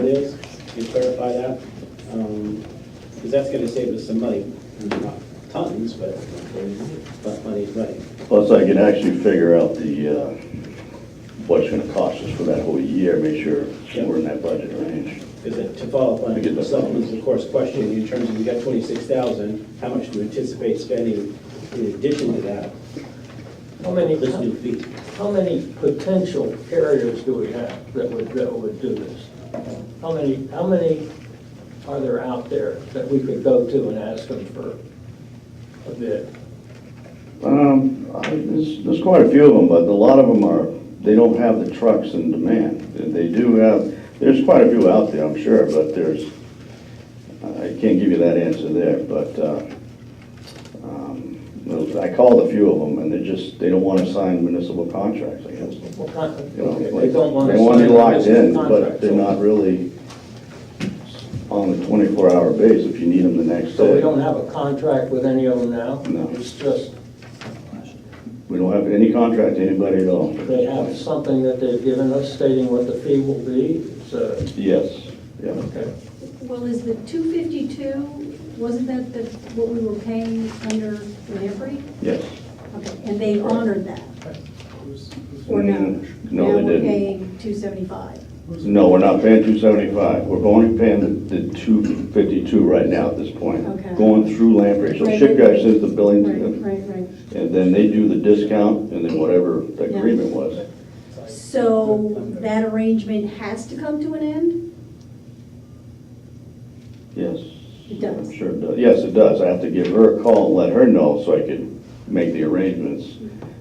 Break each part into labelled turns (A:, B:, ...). A: is, and clarify that, because that's going to save us some money, not tons, but, but money's money.
B: Plus, I can actually figure out the, uh, what it's gonna cost us for that whole year, make sure we're in that budget range.
A: Because it- to follow up
B: I
A: on
B: get that.
A: Selectman's, of course, question, in terms of, you got twenty-six thousand, how much do you anticipate spending in addition to that?
C: How many,
A: This new fee,
C: how many potential carriers do we have that would, that would do this? How many, how many are there out there that we could go to and ask them for a bid?
B: Um, I- there's, there's quite a few of them, but a lot of them are, they don't have the trucks in demand. They do have, there's quite a few out there, I'm sure, but there's, I can't give you that answer there, but, uh, um, I called a few of them, and they just, they don't wanna sign municipal contracts, I guess.
C: What kind of-
B: You know,
C: okay,
B: like,
C: They don't want to.
B: They want to be
C: sign a
B: locked in, but
C: contract.
B: they're not really on a twenty-four hour base if you need them the next
C: So we
B: day.
C: don't have a contract with any of them now?
B: No.
C: It's just,
B: We don't have any contract to anybody at all.
C: they have something that they've given us stating what the fee will be, so,
B: Yes, yeah.
C: okay.
D: Well, is the two fifty-two, wasn't that the, what we were paying under delivery?
B: Yes.
D: Okay, and they honored that, or no?
B: Mm, No, they
D: Now we're
B: didn't.
D: paying two seventy-five.
B: No, we're not paying two seventy-five. We're only paying the, the two fifty-two right now at this point.
D: Okay.
B: Going through Lamprey. So
D: Right,
B: ship
D: right.
B: guy sends the billing to
D: Right,
B: them,
D: right, right.
B: and then they do the discount, and then whatever the
D: Yeah.
B: agreement was.
D: So that arrangement has to come to an end?
B: Yes.
D: It does.
B: I'm sure it does. Yes, it does. I have to give her a call and let her know so I can make the arrangements.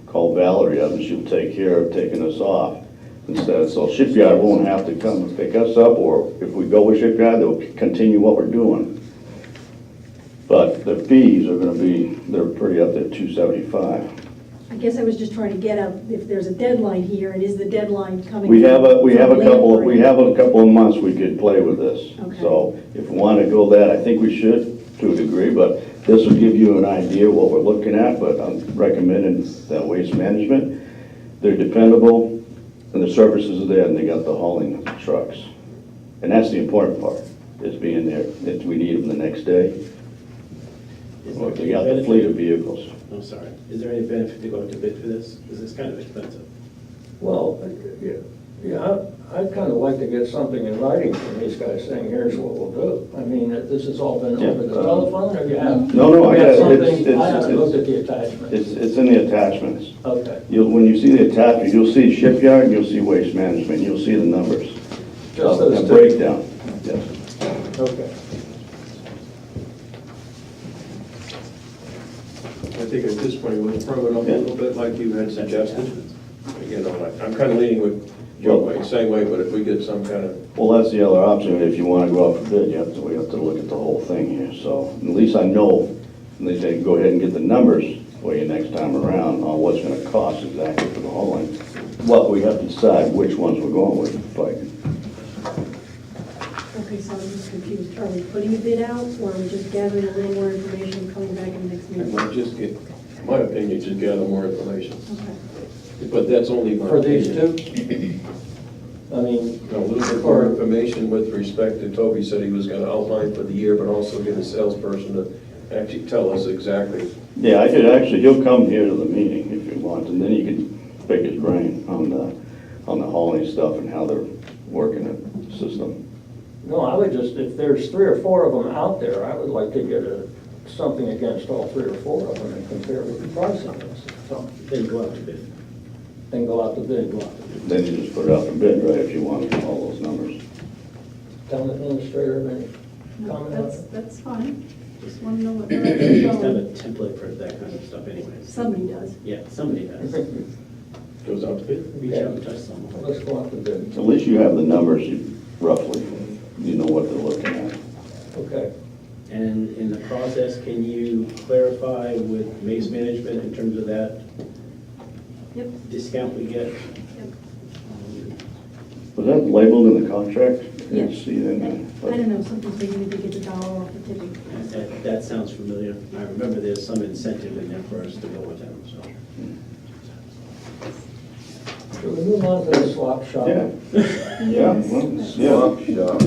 B: Call Valerie up and she'll take care of taking us off instead. So shipyard won't have to come and pick us up or if we go with shipyard, they'll continue what we're doing. But the fees are gonna be, they're pretty up there, two seventy-five.
D: I guess I was just trying to get up, if there's a deadline here, and is the deadline coming?
B: We have a, we have a
D: from
B: couple, we
D: Lamprey?
B: have a couple of months we could play with this.
D: Okay.
B: So if we want to go that, I think we should to a degree, but this will give you an idea what we're looking at, but I'm recommending that waste management. They're dependable and the services are there and they got the hauling of the trucks. And that's the important part, is being there, if we need them the next day,
A: Is there
B: or if they
A: any
B: got the
A: benefit-
B: fleet of vehicles.
A: I'm sorry, is there any benefit to go out to bid for this? Because it's kind of expensive.
C: Well, yeah, yeah, I- I'd kind of like to get something in writing from these guys saying, here's what we'll do. I mean, this has all been over the
B: Yeah.
C: telephone, or you have?
B: No, no, I
C: you have
B: got it. It's-
C: something? I
B: it's-
C: haven't
B: it's-
C: looked at the attachment.
B: It's, it's in the attachments.
C: Okay,
B: You'll, when you see the attachment, you'll see shipyard, you'll see waste management, you'll see the numbers.
C: just
B: A
C: those two.
B: breakdown, yes.
C: Okay.
E: I think at this point, we'll throw it up a little bit like you had suggested. You know, like, I'm kind of leaning with Joe, way, same way, but if we get some kind of,
B: Well, that's the other option, if you wanna go out for bid, you have to, we have to look at the whole thing here, so at least I know, at least I can go ahead and get the numbers for you next time around on what's gonna cost exactly for the hauling. What we have to decide which ones we're going with, but
D: Okay, so I'm just confused, are we putting a bid out, or are we just gathering a little more information, and coming back in the next
E: I
D: meeting?
E: might just get, in my opinion, just gather more information.
D: Okay.
E: But that's only my
C: For these
E: opinion.
C: two? I mean,
E: A little bit more information with respect to, Toby said he was going to outline for the year, but also get a salesperson to actually tell us exactly.
B: Yeah, I could actually, he'll come here to the meeting if he wants, and then you can pick his brain on the, on the hauling stuff and how they're working the system.
C: no, I would just, if there's three or four of them out there, I would like to get a, something against all three or four of them and compare with the price on this. So,
A: Then go out to bid.
C: then go out to bid, go out to bid.
B: Then you just put it out for bid, right, if you want all those numbers.
C: Town administrator, any comment
D: No,
C: on
D: That's,
C: that?
D: that's fine, just want to know what they're
A: It's kind of
D: actually
A: a template for that kind of stuff anyways.
D: Somebody does.
A: Yeah, somebody does.
E: Goes out to bid.
A: Reach out and touch someone.
C: Let's go out to bid.
B: At least you have the numbers you- roughly, you know what they're looking at.
C: Okay.
A: And in the process, can you clarify with Maze Management in terms of that
D: Yep,
A: discount we get? Um,
D: yep.
B: Was that labeled in the contract? I didn't
D: Yes.
B: See it in there.
D: I don't know, something's maybe we could get the dollar off the tipping.
A: That, that sounds familiar. I remember there's some incentive in there for us to go with them, so.
C: Should we move on to the swap shop?
B: Yeah, yeah, well, yeah.